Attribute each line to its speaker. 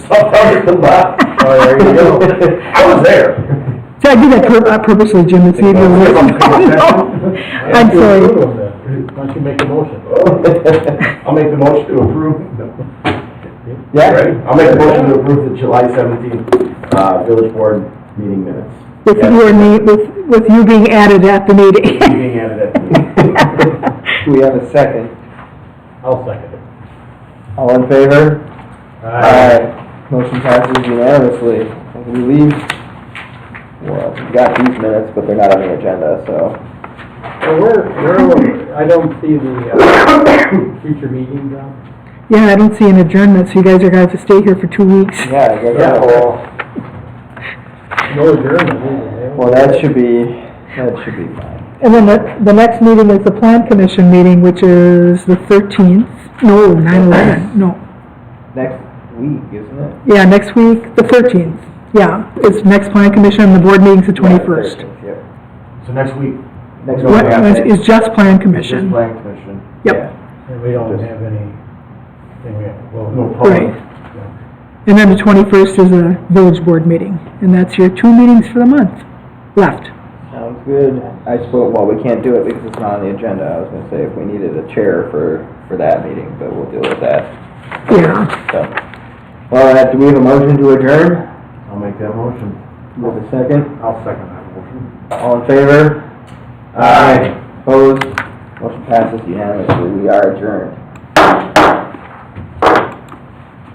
Speaker 1: Hundred bucks.
Speaker 2: Oh, there you go.
Speaker 1: I was there.
Speaker 3: See, I did that pur- uh, purposely, Jim, it's even worse. I'm sorry.
Speaker 2: Why don't you make a motion?
Speaker 1: I'll make the motion to approve. Yeah, I'll make the motion to approve the July seventeenth, uh, village board meeting minutes.
Speaker 3: With you and me, with, with you being added at the meeting.
Speaker 1: Being added at the meeting.
Speaker 4: Do we have a second?
Speaker 2: I'll second it. Uh,
Speaker 4: All in favor? Motion passes unanimously. We leave, well, we got these minutes, but they're not on the agenda, so.
Speaker 2: Well, we're, we're, I don't see the, uh, future meeting, John.
Speaker 3: Yeah, I don't see an adjournment, so you guys are gonna have to stay here for two weeks.
Speaker 4: Yeah, I guess that will,
Speaker 2: No adjournment, is it?
Speaker 4: well, that should be, that should be fine.
Speaker 3: And then the, the next meeting is the plan commission meeting, which is the thirteenth, no, nine eleven, no.
Speaker 4: Next week, isn't it?
Speaker 3: Yeah, next week, the thirteenth, yeah, it's next plan commission, and the board meeting's the twenty-first.
Speaker 4: Yep.
Speaker 1: So next week,
Speaker 4: Next
Speaker 1: What-
Speaker 4: week.
Speaker 1: yeah.
Speaker 3: Is just plan
Speaker 1: just
Speaker 3: commission,
Speaker 1: plan commission.
Speaker 3: yep,
Speaker 2: And we don't have any, thing we have, well,
Speaker 1: No
Speaker 2: no.
Speaker 1: problem.
Speaker 3: right. And then the twenty-first is a village board meeting, and that's your two meetings for the month left.
Speaker 4: Sounds good. I suppose, well, we can't do it because it's not on the agenda. I was gonna say if we needed a chair for, for that meeting, but we'll deal with that,
Speaker 3: Yeah,
Speaker 4: so. Well, uh, do we have a motion to adjourn?
Speaker 1: I'll make that motion.
Speaker 4: Do we have a second?
Speaker 1: I'll second that motion.
Speaker 4: All in favor? Aye. Opposed? Motion passes unanimously. We are adjourned.